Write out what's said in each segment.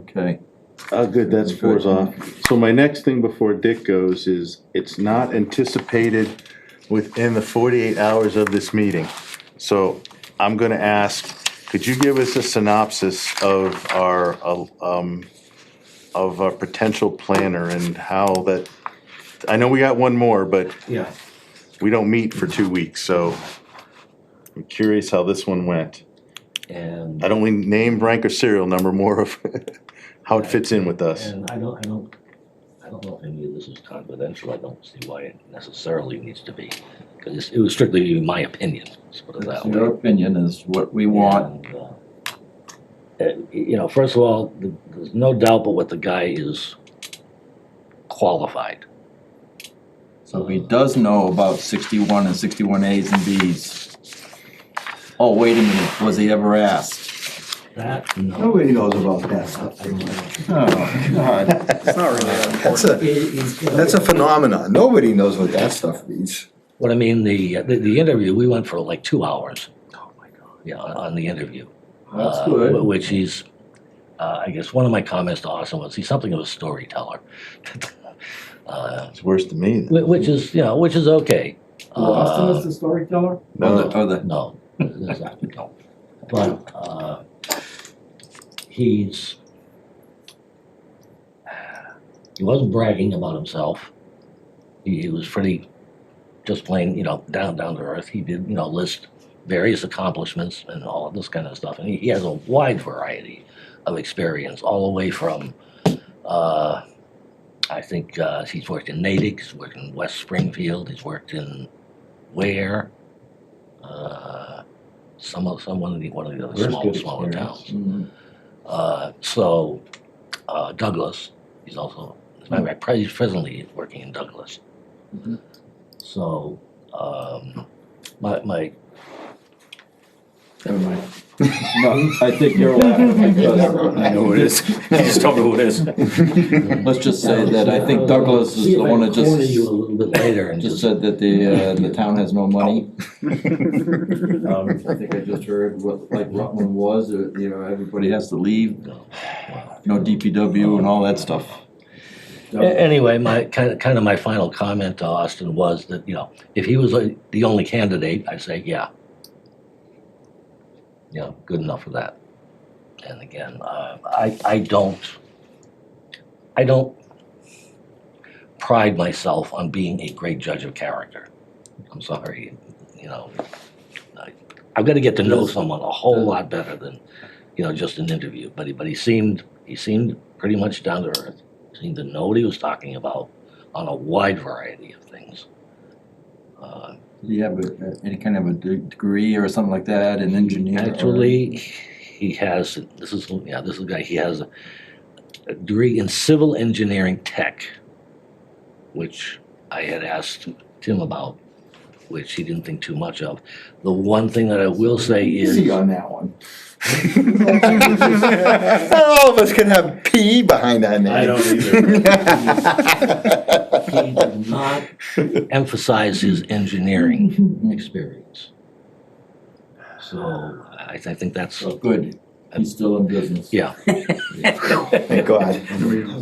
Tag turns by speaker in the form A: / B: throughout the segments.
A: Okay,
B: Uh, good, that's four's
A: Good.
B: off. So my next thing before Dick goes is, it's not anticipated within the forty-eight hours of this meeting. So I'm gonna ask, could you give us a synopsis of our, uh, um, of our potential planner and how that, I know we got one more, but
C: Yeah.
B: we don't meet for two weeks, so I'm curious how this one went.
C: And,
B: I don't mean name, rank, or serial number, more of how it fits in with us.
C: and I don't, I don't, I don't know if any of this is confidential, I don't see why it necessarily needs to be. Cause it was strictly my opinion, let's put it that
A: that's
C: way.
A: your opinion is what we want.
C: And, uh, uh, You know, first of all, th- there's no doubt but what the guy is qualified.
A: So he does know about sixty-one and sixty-one As and Bs. Oh, wait a minute, was he ever asked?
C: That, no.
D: Nobody knows about that
C: I don't know.
A: Oh, God.
D: It's not really that important.
C: It- it-
D: That's a phenomenon. Nobody knows what that stuff means.
C: What I mean, the, the, the interview, we went for like two hours. Oh, my God. Yeah, on, on the interview.
A: That's
C: uh, wh-
A: good.
C: Which he's, uh, I guess one of my comments to Austin was he's something of a storyteller. Uh,
B: It's worse than me. then.
C: wh- Which is, you know, which is okay.
A: Well, Austin
C: Uh,
A: is the storyteller?
B: No.
A: Or the- Or the,
C: No, there's not, no. But, uh, he's, he wasn't bragging about himself. He, he was pretty, just plain, you know, down, down to earth. He did, you know, list various accomplishments and all of this kind of stuff. And he, he has a wide variety of experience, all the way from, uh, I think, uh, he's worked in Natick, he's worked in West Springfield, he's worked in Ware, uh, some of some one of the one of the other small smaller towns.
A: Mm,
C: Uh, so uh, Douglas, he's also as a matter of fact, pre- he's presently working in Douglas.
A: Mhm.
C: So um, my my
A: never mind. No, I think you're laughing because,
D: I know what it is.
E: Just tell me who it is.
A: let's just say that I think
C: I'll- I'll
A: Douglass is
C: see if
A: the
C: I
A: one
C: can
A: that just.
C: corner you a little bit later and
A: Just
C: just,
A: said that the, uh, the town has no money. Um,
B: Um,
A: I think I just heard what, like Rutland was, uh, you know, everybody has to leave,
C: no. Wow.
A: no DPW and all that stuff.
C: A- Anyway, my kind of kind of my final comment to Austin was that you know if he was like, the only candidate, I'd say yeah, you know, good enough for that. And again, uh, I I don't I don't pride myself on being a great judge of character. I'm sorry, you know, I, I've got to get to know
A: Does-
C: someone a whole
A: does-
C: lot better than you know just an interview. But he, but he seemed he seemed pretty much down to earth. Seemed to know what he was talking about on a wide variety of things. Uh,
A: Do you have a, any kind of a de- degree or something like that, an engineer? or-
C: Actually, he has, this is, yeah, this is a guy, he has a a degree in civil engineering tech, which I had asked Tim about, which he didn't think too much of. The one thing that I will say is,
D: Easy on that one. Not all of us can have P behind that name.
E: I don't either.
C: he did not emphasize his engineering experience. So I, I think that's,
A: So, good, he's still in business.
C: yeah.
D: Thank God.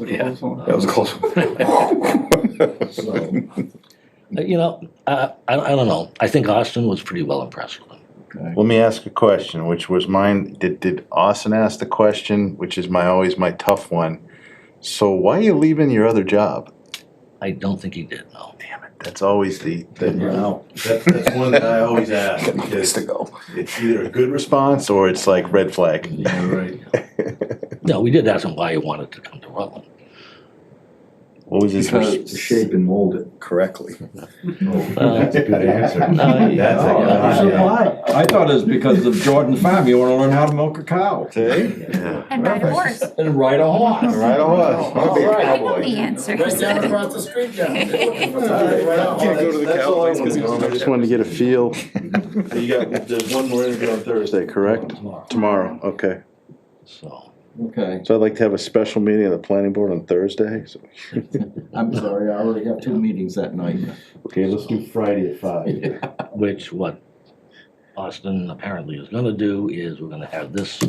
C: Yeah.
D: That was a close one.
C: So, uh, you know, uh, I, I don't know. I think Austin was pretty well impressed with him.
A: Okay.
B: Let me ask a question, which was mine. Did, did Austin ask the question, which is my always my tough one? So why are you leaving your other job?
C: I don't think he did, no.
B: Damn it, that's always the, the
A: Wow.
E: That's, that's one that I always ask,
D: Got
E: because
D: place to go.
E: it's either a good response.
B: response or it's like red flag.
A: Yeah, right.
C: No, we did ask him why he wanted to come to Rutland.
B: What was his? response?
A: Because-
D: Shape and mold it correctly.
C: Well, Uh,
E: That's a good answer.
C: No, yeah.
E: That's a good answer.
A: Oh, I thought it was because of Jordan Farm, you wanna learn how to milk a cow.
B: See?
F: And ride a horse.
A: And ride a horse.
B: Right on. Wanna be a
F: I know
B: cowboy.
F: the answer.
E: the street, John.
D: Can't go to the
E: That's all I
D: cowboys 'cause
E: wanna
D: it's-
E: know.
B: I just wanted to get a feel. You got, there's one more interview on Thursday, correct?
C: Tomorrow.
B: Tomorrow, okay.
C: So,
A: Okay,
B: So I'd like to have a special meeting of the planning board on Thursday. So-
A: I'm sorry, I already got two meetings that night.
B: Okay, let's do Friday at five.
C: which what Austin apparently is gonna do is we're gonna have this